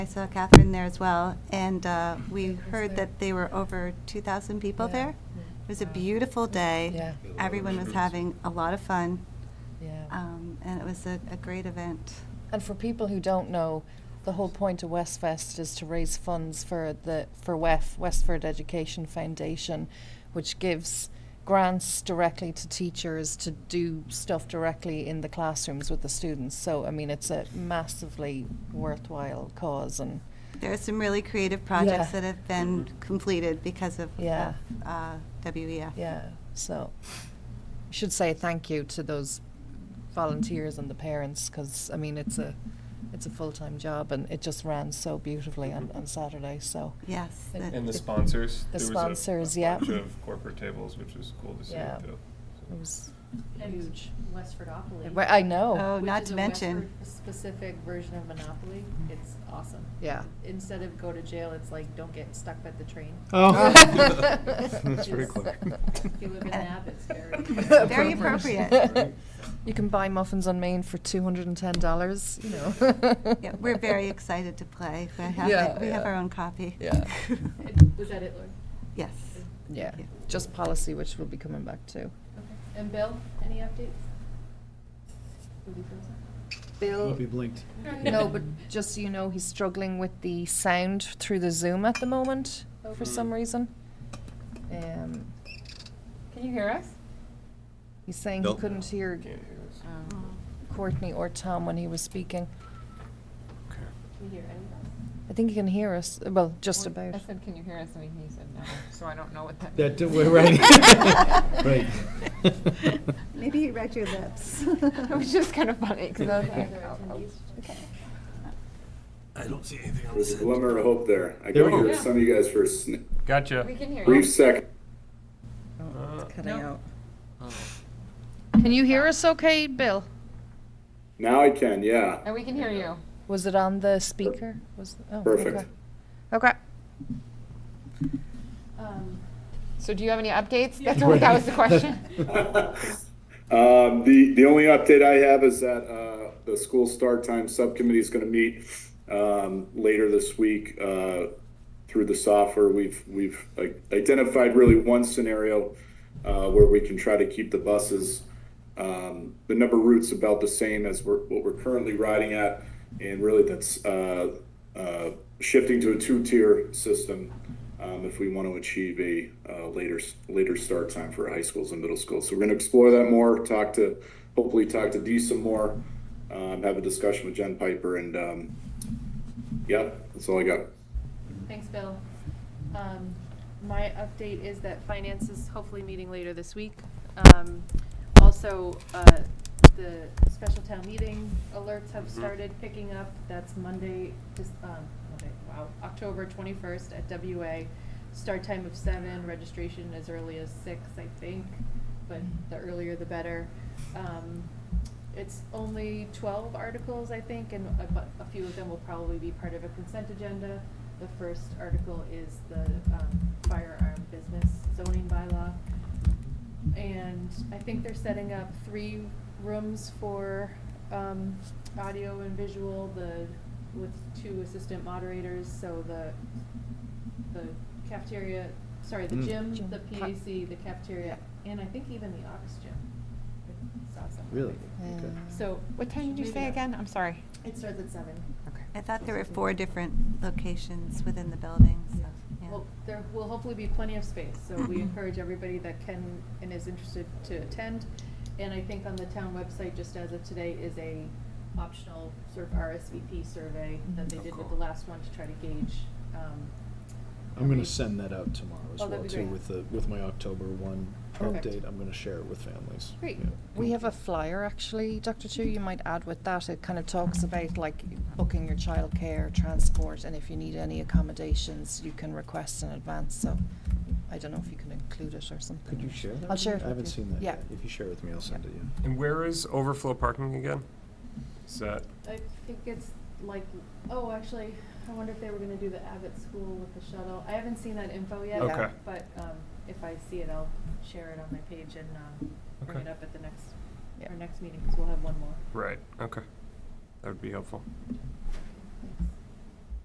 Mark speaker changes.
Speaker 1: I saw Catherine there as well, and uh, we heard that there were over 2,000 people
Speaker 2: Yeah.
Speaker 1: there. It was a
Speaker 2: Wow.
Speaker 1: beautiful day.
Speaker 2: Yeah.
Speaker 1: Everyone was having a lot of fun,
Speaker 2: Yeah.
Speaker 1: um, and it was a a great event.
Speaker 2: And for people who don't know, the whole point of Westfest is to raise funds for the for WEF, Westford Education Foundation, which gives grants directly to teachers to do stuff directly in the classrooms with the students. So I mean it's a massively worthwhile cause and
Speaker 1: There are some really creative projects
Speaker 2: Yeah.
Speaker 1: that have been completed because of
Speaker 2: Yeah.
Speaker 1: of, uh, WEF.
Speaker 2: yeah, so I should say thank you to those volunteers and the parents because I mean it's a it's a full-time job and it just ran so beautifully on, on Saturday so
Speaker 1: Yes.
Speaker 2: And-
Speaker 1: that-
Speaker 3: And the sponsors.
Speaker 2: The
Speaker 3: There was a-
Speaker 2: sponsors,
Speaker 3: a
Speaker 2: yeah.
Speaker 3: bunch of corporate tables, which was cool to see
Speaker 2: Yeah.
Speaker 3: too.
Speaker 2: it was
Speaker 4: And Westfordopoly.
Speaker 2: Well, I know.
Speaker 1: Oh,
Speaker 4: which
Speaker 1: not
Speaker 4: is
Speaker 1: to
Speaker 4: a
Speaker 1: mention,
Speaker 4: Westford Specific version of Monopoly. It's awesome.
Speaker 2: Yeah.
Speaker 4: Instead of go to jail, it's like, don't get stuck by the train.
Speaker 5: Oh.
Speaker 2: That's
Speaker 4: very
Speaker 5: quick.
Speaker 4: If you live in Nab, it's very.
Speaker 1: Very appropriate.
Speaker 2: You can buy muffins on Main for two hundred and ten dollars. You know.
Speaker 1: yeah, we're very excited to play. We have
Speaker 2: Yeah,
Speaker 1: it- we have
Speaker 2: yeah.
Speaker 1: our own copy.
Speaker 2: Yeah.
Speaker 4: And Was that it, Lord?
Speaker 1: Yes.
Speaker 2: Yeah,
Speaker 1: Yeah.
Speaker 2: just policy, which we'll be coming back to.
Speaker 4: Okay. And Bill, any updates? Will be frozen?
Speaker 5: Will be blinked.
Speaker 2: No, but just so you know, he's struggling with the sound through the Zoom at the moment for some reason. Um,
Speaker 4: Can you hear us?
Speaker 2: he's saying he
Speaker 6: Nope.
Speaker 2: couldn't hear
Speaker 3: Can't hear us.
Speaker 7: Um,
Speaker 2: Courtney or Tom when he was speaking. Oh.
Speaker 4: Can you hear any of us?
Speaker 2: I think he can hear us. Well, just about.
Speaker 7: I said, can you hear us? And he said no, so I don't know what that means.
Speaker 5: That, we're right. Right.
Speaker 1: Maybe you read your lips.
Speaker 7: It was just kind of funny, because I was like,
Speaker 4: Other
Speaker 7: oh, oh.
Speaker 4: attendees?
Speaker 1: Uh,
Speaker 6: I don't see anything on
Speaker 8: There's a glimmer of hope there. I
Speaker 5: There
Speaker 8: got
Speaker 5: we go.
Speaker 8: here some of you guys for a sn-
Speaker 3: Gotcha.
Speaker 7: we can hear you.
Speaker 8: brief second.
Speaker 3: Uh,
Speaker 2: Oh, Cutting
Speaker 7: No.
Speaker 2: out. Can you hear us okay, Bill?
Speaker 8: Now I can, yeah.
Speaker 7: And we can hear you.
Speaker 2: Was it on the speaker? Was, oh,
Speaker 8: Perfect.
Speaker 2: okay. Okay.
Speaker 4: Um,
Speaker 7: So do you have any updates? That's what, that was the question.
Speaker 8: Um, the, the only update I have is that, uh, the school start time subcommittee is gonna meet, um, later this week, uh, through the software. We've, we've like, identified really one scenario, uh, where we can try to keep the buses, um, the number of routes about the same as we're, what we're currently riding at. And really that's, uh, uh, shifting to a two-tier system, um, if we want to achieve a uh, later later start time for high schools and middle schools. So we're going to explore that more. Talk to hopefully talk to Dee some more. Um, have a discussion with Jen Piper, and um, yeah, that's all I got.
Speaker 4: Thanks, Bill. Um, My update is that finance is hopefully meeting later this week. Um, Also, uh, the special town meeting alerts have started picking up. That's Monday, this, um, Monday, wow, October 21st at WA. Start time of seven, registration as early as six, I think, but the earlier the better. Um, It's only 12 articles, I think, and a bu- a few of them will probably be part of a consent agenda. The first article is the um, firearm business zoning bylaw. And I think they're setting up three rooms for um, audio and visual, the, with two assistant moderators, so the, the cafeteria, sorry, the
Speaker 5: Mm.
Speaker 4: gym,
Speaker 2: Gym.
Speaker 4: the PAC, the cafeteria, and I think even the Ox Gym. I saw somewhere.
Speaker 5: Really? Okay.
Speaker 4: So.
Speaker 7: What time did you
Speaker 4: Maybe
Speaker 7: say
Speaker 4: not.
Speaker 7: again? I'm sorry.
Speaker 4: It starts at seven.
Speaker 7: Okay.
Speaker 1: I thought there were four different locations within the building, so, yeah.
Speaker 4: Well, there will hopefully be plenty of space, so we encourage everybody that can and is interested to attend. And I think on the town website, just as of today, is a optional sort of RSVP survey that they did with the last one to try to gauge. um,
Speaker 5: I'm gonna send that out tomorrow as
Speaker 4: Oh, that'd
Speaker 5: well
Speaker 4: be
Speaker 5: too,
Speaker 4: great.
Speaker 5: with the, with my October one
Speaker 4: Perfect.
Speaker 5: update. I'm gonna share it with families.
Speaker 4: Great.
Speaker 5: Yeah.
Speaker 2: We have a flyer actually, Dr. Chu, you might add with that. It kind of talks about like booking your childcare, transport, and if you need any accommodations, you can request in advance. So I don't know if you can include it or something.
Speaker 5: Could you share that?
Speaker 2: I'll
Speaker 5: with
Speaker 2: share
Speaker 5: me?
Speaker 2: it
Speaker 5: I
Speaker 2: with
Speaker 5: haven't
Speaker 2: you.
Speaker 5: seen that
Speaker 2: Yeah.
Speaker 5: yet. If you share it with me, I'll send it, yeah.
Speaker 3: And where is overflow parking again? Is that,
Speaker 4: I think it's like, oh, actually, I wonder if they were gonna do the Abbott School with the shuttle. I haven't seen that info yet.
Speaker 3: Okay.
Speaker 4: But, um, if I see it, I'll share it on my page and, um, bring
Speaker 3: Okay.
Speaker 4: it up at the next,
Speaker 2: Yeah.
Speaker 4: our next meeting, because we'll have one more.
Speaker 3: right, okay. That would be helpful.